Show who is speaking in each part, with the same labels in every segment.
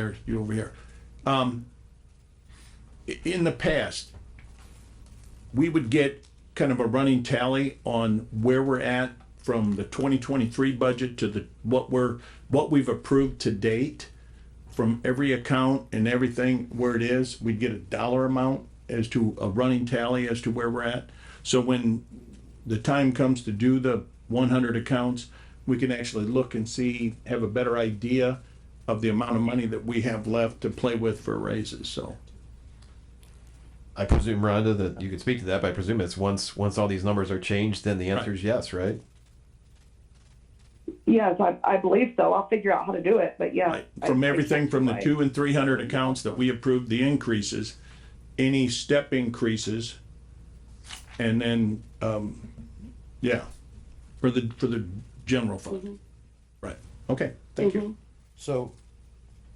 Speaker 1: there, you over here. Um, i- in the past, we would get kind of a running tally on where we're at from the twenty twenty-three budget to the, what we're, what we've approved to date from every account and everything where it is, we'd get a dollar amount as to a running tally as to where we're at. So when the time comes to do the one hundred accounts, we can actually look and see, have a better idea of the amount of money that we have left to play with for raises, so.
Speaker 2: I presume, Rhonda, that you could speak to that, but I presume it's once, once all these numbers are changed, then the answer is yes, right?
Speaker 3: Yes, I, I believe so. I'll figure out how to do it, but yeah.
Speaker 1: Right, From
Speaker 3: I- I
Speaker 1: everything
Speaker 3: think
Speaker 1: from the
Speaker 3: that's right.
Speaker 1: two and three hundred accounts that we approved the increases, any step increases. And then, um, yeah, for the, for the general fund.
Speaker 3: Mm-hmm.
Speaker 1: Right, okay, thank you.
Speaker 4: So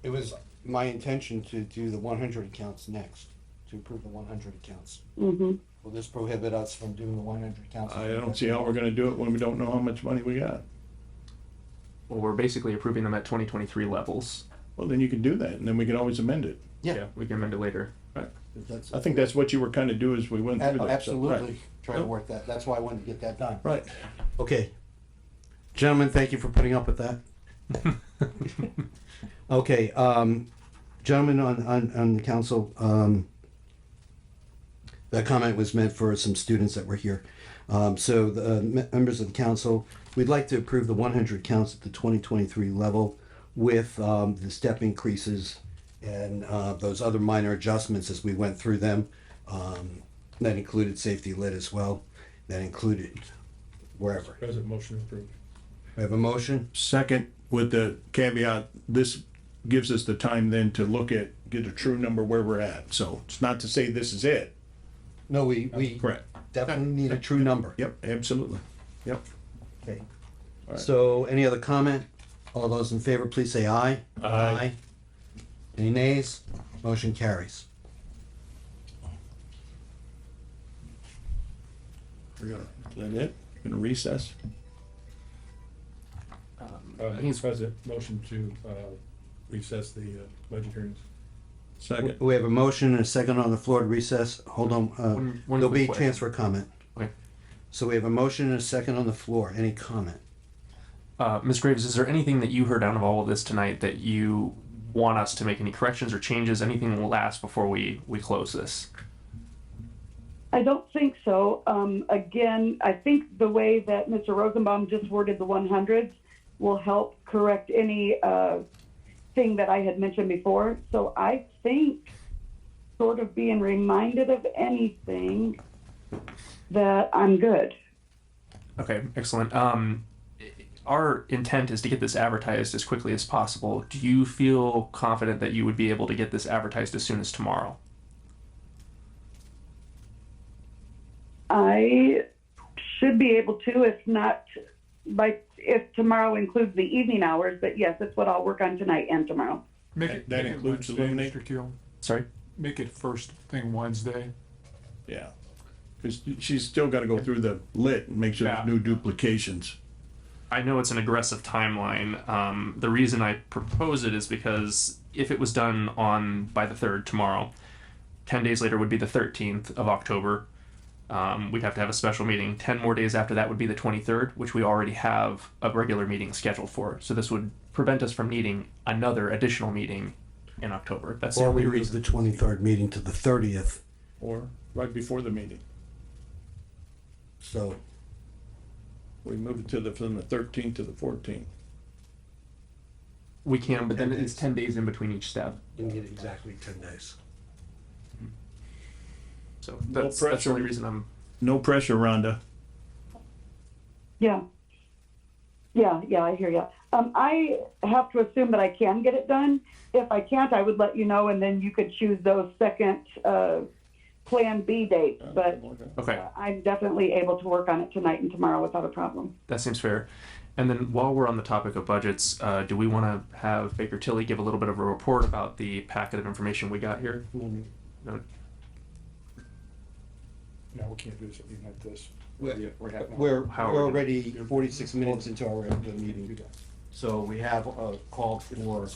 Speaker 4: it was my intention to do the one hundred accounts next, to approve the one hundred accounts. Mm-hmm. Will this prohibit us from doing the one hundred accounts?
Speaker 1: I don't see how we're gonna do it when we don't know how much money we got.
Speaker 5: Well, we're basically approving them at 2023 levels.
Speaker 1: Well, then you can do that and then we can always amend it.
Speaker 4: Yeah,
Speaker 5: we can amend it later.
Speaker 1: Right.
Speaker 4: if that's,
Speaker 1: I think that's what you were kind of do as we went through that. so, right.
Speaker 4: absolutely, try to work that, that's why I wanted to get that done.
Speaker 1: Right,
Speaker 4: Okay. Gentlemen, thank you for putting up with that. Okay, um, gentlemen on, on, on the council, um, that comment was meant for some students that were here. Um, so the uh, me- members of the council, we'd like to approve the one hundred counts at the twenty twenty-three level with, um, the step increases and, uh, those other minor adjustments as we went through them. Um, that included safety lit as well, that included wherever.
Speaker 6: President, motion approved.
Speaker 4: We have a motion?
Speaker 1: second, with the caveat, this gives us the time then to look at, get a true number where we're at, so it's not to say this is it.
Speaker 4: No, we, we
Speaker 1: Correct.
Speaker 4: definitely need a true number.
Speaker 1: Yep, absolutely. Yep.
Speaker 4: Okay. So any other comment? All those in favor, please say aye. Aye. Any nays? Motion carries.
Speaker 1: We're gonna, is that it? Gonna recess?
Speaker 6: Uh,
Speaker 5: think it's-
Speaker 6: Mr. President, motion to, uh, recess the, uh, budget hearings.
Speaker 1: Second.
Speaker 4: We have a motion and a second on the floor to recess. Hold on,
Speaker 5: One-
Speaker 4: uh,
Speaker 5: one
Speaker 4: there'll be
Speaker 5: quick
Speaker 4: transfer comment.
Speaker 5: Okay.
Speaker 4: So we have a motion and a second on the floor. Any comment?
Speaker 5: Uh, Ms. Graves, is there anything that you heard out of all of this tonight that you want us to make any corrections or changes? Anything will last before we we close this.
Speaker 3: I don't think so. Um, again, I think the way that Mr. Rosenbaum just worded the 100s will help correct any uh, thing that I had mentioned before. So I think, sort of being reminded of anything, that I'm good.
Speaker 5: Okay, excellent. Um, i- our intent is to get this advertised as quickly as possible. Do you feel confident that you would be able to get this advertised as soon as tomorrow?
Speaker 3: I should be able to, if not by if tomorrow includes the evening hours. But yes, that's what I'll work on tonight and tomorrow.
Speaker 7: Make
Speaker 1: That-
Speaker 7: it,
Speaker 1: that
Speaker 7: make it
Speaker 1: includes
Speaker 7: Wednesday,
Speaker 1: eliminate-
Speaker 7: Mr. Keel.
Speaker 5: Sorry.
Speaker 7: Make it first thing Wednesday.
Speaker 1: Yeah. Cause she's still gotta go through the lit and make sure there's
Speaker 7: Yeah.
Speaker 1: no duplications.
Speaker 5: I know it's an aggressive timeline. Um, the reason I propose it is because if it was done on by the third tomorrow, ten days later would be the thirteenth of October. Um, we'd have to have a special meeting. Ten more days after that would be the twenty third, which we already have a regular meeting scheduled for. So this would prevent us from needing another additional meeting in October. That's the
Speaker 4: Or we
Speaker 5: only
Speaker 4: move
Speaker 5: reason.
Speaker 4: the twenty-third meeting to the thirtieth,
Speaker 1: Or right before the meeting.
Speaker 4: so.
Speaker 1: We move it to the, from the thirteenth to the fourteenth.
Speaker 5: We can, but then it's ten days in between each step.
Speaker 4: You need exactly ten days.
Speaker 5: So that's, that's the only
Speaker 1: pressure.
Speaker 5: reason I'm.
Speaker 1: No pressure, Rhonda.
Speaker 3: Yeah. Yeah, yeah, I hear you. Um, I have to assume that I can get it done. If I can't, I would let you know, and then you could choose those second uh, Plan B dates. But
Speaker 5: Okay.
Speaker 3: I'm definitely able to work on it tonight and tomorrow without a problem.
Speaker 5: That seems fair. And then while we're on the topic of budgets, uh, do we want to have Baker Tilly give a little bit of a report about the packet of information we got here? No?
Speaker 7: No, we can't do something like this.
Speaker 4: We're,
Speaker 7: We're having-
Speaker 4: we're
Speaker 5: How are we doing?
Speaker 4: already forty-six minutes into our regular meeting. So we have uh, called for